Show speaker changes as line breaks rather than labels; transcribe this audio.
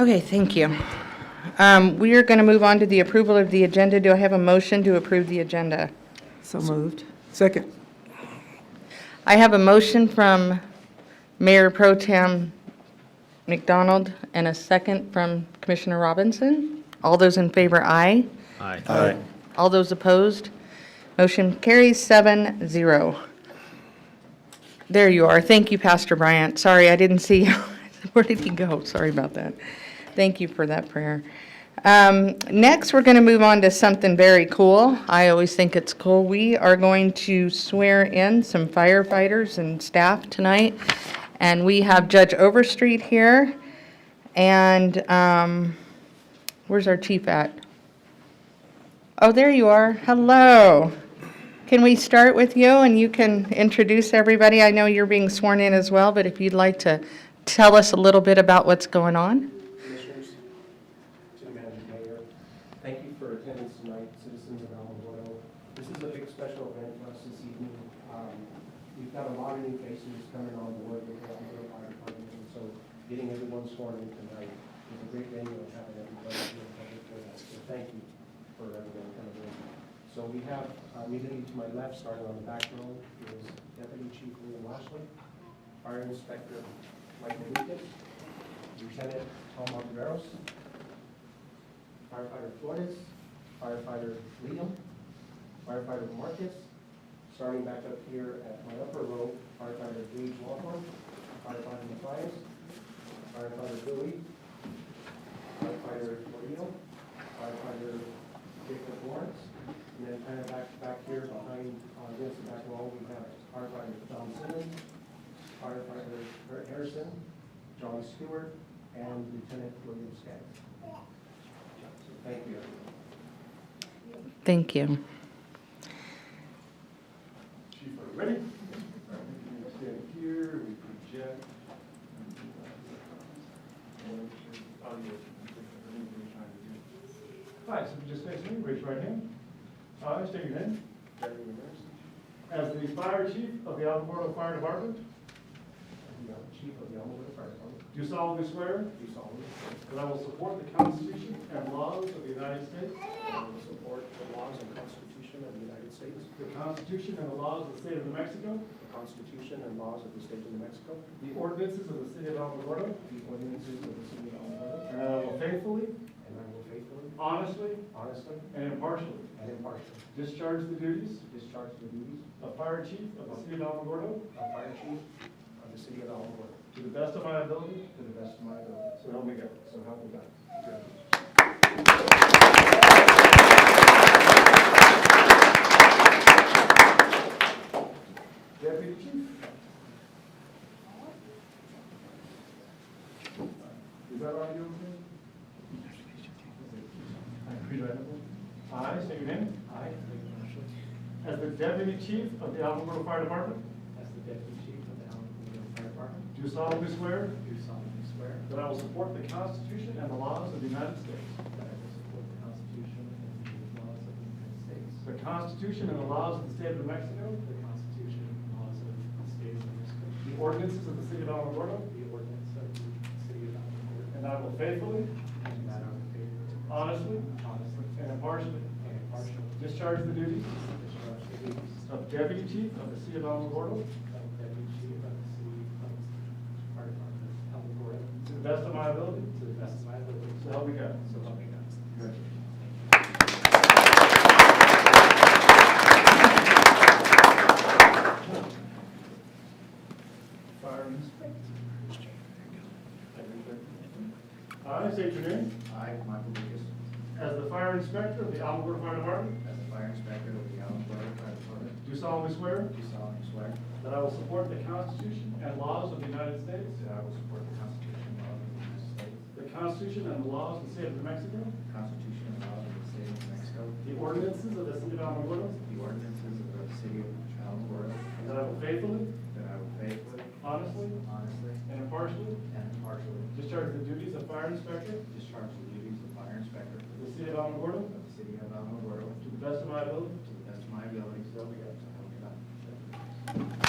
Okay, thank you. Um, We are going to move on to the approval of the agenda. Do I have a motion to approve the agenda?
So moved.
Second.
I have a motion from Mayor Pro Tem McDonald and a second from Commissioner Robinson. All those in favor, aye.
Aye.
All those opposed, motion carries seven zero. There you are. Thank you, Pastor Bryant. Sorry, I didn't see you. Where did he go? Sorry about that. Thank you for that prayer. Um, Next, we're going to move on to something very cool. I always think it's cool. We are going to swear in some firefighters and staff tonight. And we have Judge Overstreet here. And um, where's our chief at? Oh, there you are. Hello. Can we start with you and you can introduce everybody? I know you're being sworn in as well, but if you'd like to tell us a little bit about what's going on.
Commissioners, to the Madam Mayor, thank you for attendance tonight, citizens of Alamogordo. This is a big special event for us this evening. Um, We've got a lot of new faces coming on board with the Alamogordo Fire Department, and so getting everyone sworn in tonight is a great venue and having everybody here publicly. So thank you for everyone coming in. So we have uh, immediately to my left, starting on the back row, is Deputy Chief Liam Lashley, Fire Inspector Michael Lucas, Lieutenant Tom Monteveros, firefighter Flores, firefighter Liam, firefighter Marcus, starting back up here at my upper row, firefighter Gage Lawhorn, firefighter Matthias, firefighter Billy, firefighter Marino, firefighter Jacob Lawrence, and then kind of back, back here behind, on this back wall, we have firefighter Don Simmons, firefighter Kurt Harrison, John Stewart, and Lieutenant William Skaggs. So thank you. everyone.
Thank you.
Chief, are you ready? All right, we can Stand here, we project. and do that. And make sure the audio is complete, I believe we're trying to do. Hi, so if you just face me, raise your right hand. I state your name. Gary Rivers. As the fire chief of the Alamogordo Fire Department,
You know, uh, Chief of the Elmwood Fire Department,
do solemnly swear
do solemnly swear
that I will support the Constitution and laws of the United States,
that I will um, support the laws and Constitution of the United States,
the Constitution and the laws of the state of New Mexico,
the Constitution and laws of the State of New Mexico,
the ordinances of the city of Alamogordo,
the ordinances of the City of Elmwood,
and that I will faithfully,
and I will faithfully,
honestly,
honestly,
and impartially
and impartially
Discharge the duties
discharge the duties
of Fire Chief of the City of Alamogordo
of Fire Chief of the City of Elmwood
to the best of my ability,
to the best of my ability.
so help me God.
So help me God.
Deputy Chief. Is that audio okay? Read right up. I state your name.
I, Lee Marshall,
As the Deputy Chief of the Alamogordo Fire Department,
as the Deputy Chief of the Alamogordo Fire Department,
do solemnly swear
do solemnly swear
that I will support the Constitution and the laws of the United States,
that I will support the Constitution and the laws of the United States,
the Constitution and the laws of the State of New Mexico,
the Constitution and laws of the State of New Mexico,
the ordinances of the City of Alamogordo,
the ordinance of the City of Alamogordo,
and I will faithfully,
and that I will faithfully,
honestly,
honestly,
and impartially
and impartially
discharge the duties
discharge the duties
of Deputy Chief of the City of Alamogordo
of Deputy Chief of the City of the Fire Department of Alamogordo
to the best of my ability,
to the best of my ability,
so help me God.
so help me God.
Fire Inspector. I state your name.
I, Michael Lucas,
As the Fire Inspector of the Alamogordo Fire Department,
as the fire inspector of the Alamogordo Fire Department,
do solemnly swear
do solemnly swear
that I will support the Constitution and laws of the United States,
that I will support the Constitution and laws of the United States,
the Constitution and the laws of the State of New Mexico,
the Constitution and laws of the State of New Mexico,
the ordinances of the City of Alamogordo,
the ordinances of the City of Alamogordo,
and that I will faithfully,
that I will faithfully,
honestly,
honestly,
and impartially
and impartially
discharge the duties of Fire Inspector
discharge the duties of fire inspector
of the City of Alamogordo
of the City of Alamogordo
to the best of my ability.
to the best of my abilities, so help me God.